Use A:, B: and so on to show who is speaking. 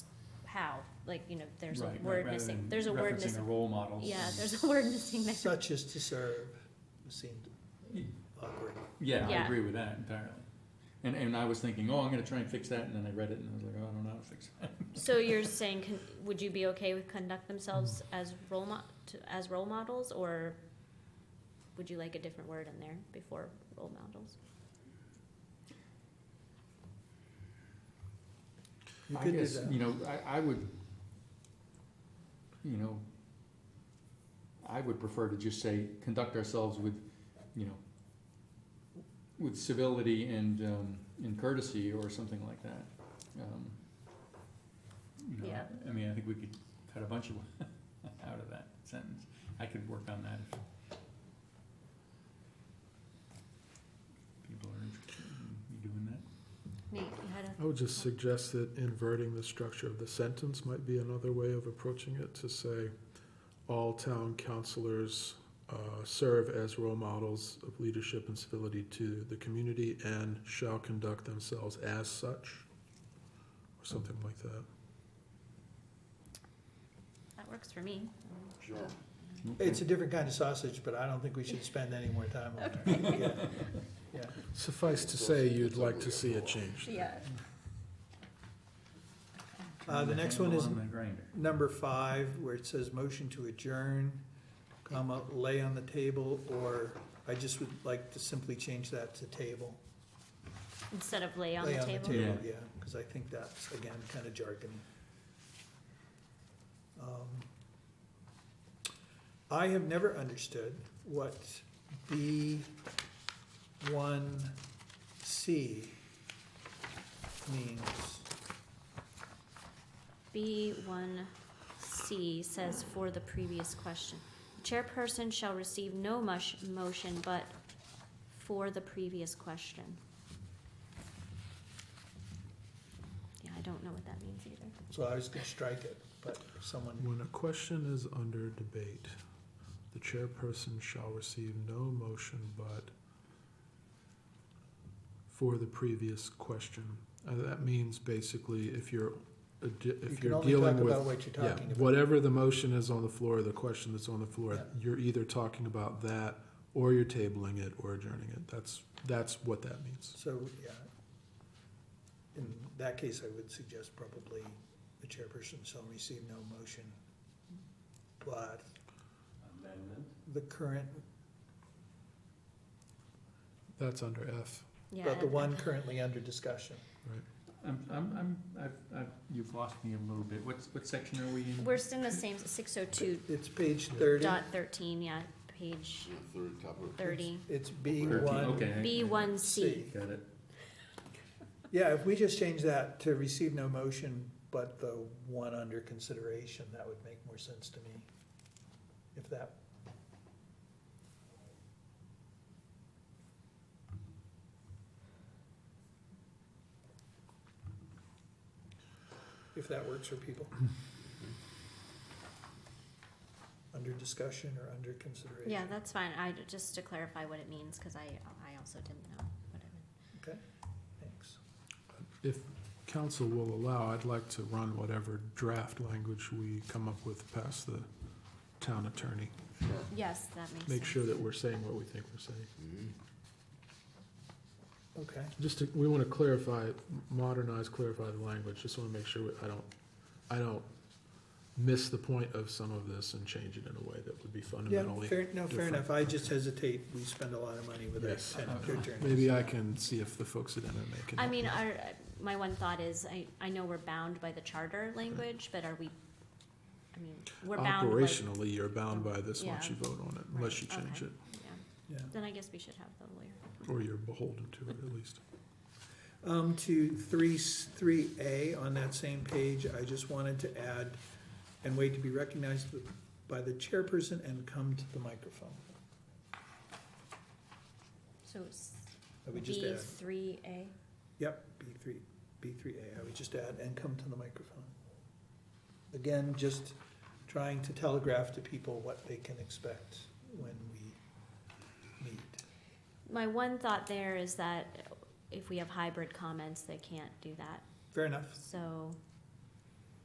A: like, you know, there's a
B: Right,
A: word
B: rather
A: missing,
B: than
A: there's a word
B: Referencing a
A: missing.
B: role model.
A: Yeah, Uh, there's a word missing there.
C: Such as to serve seemed awkward.
B: Yeah, I
A: Yeah.
B: agree with that entirely. And, and I was thinking, oh, I'm gonna try and fix that, and then I read it and I was like, oh, I don't know how to fix that.
A: So you're saying, con- would you be okay with conduct themselves
B: Mm-hmm.
A: as role mo- to- as role models, or would you like a different word in there before role models?
C: You
B: I
C: could do
B: guess,
C: that.
B: You know, I, I would, you know, I would prefer to just say, conduct ourselves with, you know, with civility and, um, and courtesy or something like that. Um, you know,
A: Yeah.
B: I mean, I think we could cut a bunch of, out of that sentence. I could work on that if people are interested in me doing that.
A: Nate, you had a
D: I would just suggest that inverting the structure of the sentence might be another way of approaching it, to say, all town councilors uh, serve as role models of leadership and civility to the community and shall conduct themselves as such, or something like that.
A: that works for me.
E: Sure.
C: It's a different kind of sausage, but I don't think we should spend any more time on it. Yeah. Yeah.
D: Suffice to say, you'd like to see it changed.
A: Yeah.
C: Uh, the next one is
B: On the grinder.
C: number five, where it says motion to adjourn, comma, lay on the table, or I just would like to simply change that to table.
A: Instead of lay on
C: Lay
A: the
C: on the
A: table.
C: table, yeah, because I think that's, again, kind of jargony. Um, I have never understood what B one C means.
A: B one C says for the previous question, the chairperson shall receive no mush, motion but for the previous question. Yeah, I don't know what that means either.
C: So I was gonna strike it, but someone,
D: When a question is under debate, the chairperson shall receive no motion but for the previous question. Uh, that means basically if you're, a di-
C: you
D: if
C: can
D: you're
C: only talk
D: dealing
C: about
D: with,
C: what you're
D: yeah,
C: talking about.
D: whatever the motion is on the floor, the question that's on the floor,
C: Yeah.
D: you're either talking about that or you're tabling it or adjourning it. That's, that's what that means.
C: So, yeah. In that case, I would suggest probably the chairperson shall receive no motion. But
E: Amendment?
C: the current,
D: That's under F.
A: Yeah.
C: but the
A: I-
C: one currently under discussion.
B: I'm, I'm, I'm, I've, I've, you've lost me a little bit. What's, what section are we in?
A: We're still in the same, six oh two
C: It's page thirty.
A: dot thirteen, yeah, page
E: Third top of.
A: thirty.
C: It's B
B: Thirteen,
C: one
B: okay.
A: B one C.
C: C.
B: Got it.
C: Yeah, if we just change that to receive no motion, but the one under consideration, that would make more sense to me. If that, if that works for people. Under discussion or under consideration.
A: Yeah, that's fine. I, just to clarify what it means, cause I, I also didn't know what it meant.
C: Thanks.
D: If council will allow, I'd like to run whatever draft language we come up with past the town attorney.
A: Yes, that makes sense.
D: Make sure that we're saying what we think we're saying.
C: Okay,
D: Just to, we want to clarify, modernize, clarify the language. Just want to make sure we- I don't, I don't miss the point of some of this and change it in a way that would be
C: yeah,
D: fundamentally.
C: fair, no, fair
D: different.
C: enough. I just hesitate. We spend a lot of money with our
D: Yes.
C: tenant attorneys.
D: Maybe I can see if the folks at MMA can.
A: I
D: help
A: mean,
D: me.
A: our, my one thought is, I, I know we're bound by the charter language, but are we, I mean, we're bound by,
D: Operationally, you're bound by this
A: Yeah.
D: once you vote on it, unless you
A: Right,
D: change
A: okay.
D: it,
A: yeah,
C: Yeah.
A: then I guess we should have the lawyer.
D: or you're beholden to it at least.
C: Um, to three, three A on that same page, I just wanted to add, and wait to be recognized by the chairperson and come to the microphone.
A: So it's
C: I would just uh,
A: B
C: add,
A: three A,
C: yep, B three, B three A, I would just add, and come to the microphone. Again, just trying to telegraph to people what they can expect when we meet.
A: my one thought there is that if we have hybrid comments, they can't do that,
C: Fair enough,
A: so